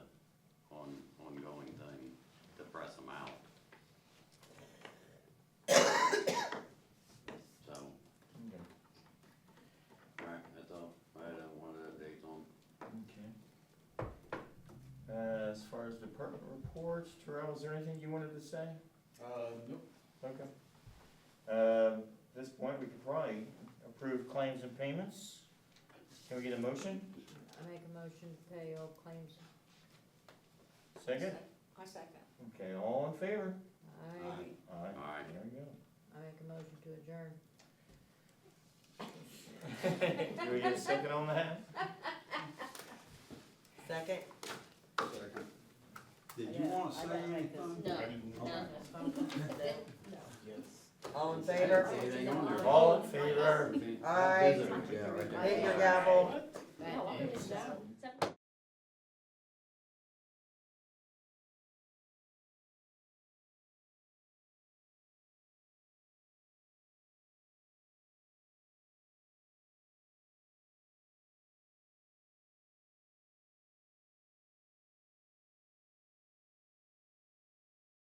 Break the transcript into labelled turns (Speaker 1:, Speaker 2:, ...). Speaker 1: Uh, department reports. Terrell, is there anything you wanted to say?
Speaker 2: Uh, nope.
Speaker 1: Okay. Um, At this point, we could probably approve claims and payments. Can we get a motion?
Speaker 3: I make a motion to pay all claims.
Speaker 1: Second?
Speaker 4: I second.
Speaker 1: Okay, all in favor?
Speaker 3: I,
Speaker 1: Aye.
Speaker 2: Aye.
Speaker 1: There we go.
Speaker 3: I make a motion to adjourn.
Speaker 1: Do we get a second on that?
Speaker 3: Second?
Speaker 5: Did you wanna say anything?
Speaker 4: No,
Speaker 5: Okay.
Speaker 3: All in
Speaker 5: Anything on there?
Speaker 1: All in favor?
Speaker 5: That
Speaker 3: Aye.
Speaker 5: visitor, yeah, right there.
Speaker 3: Hit your gavel.
Speaker 4: No, I didn't know.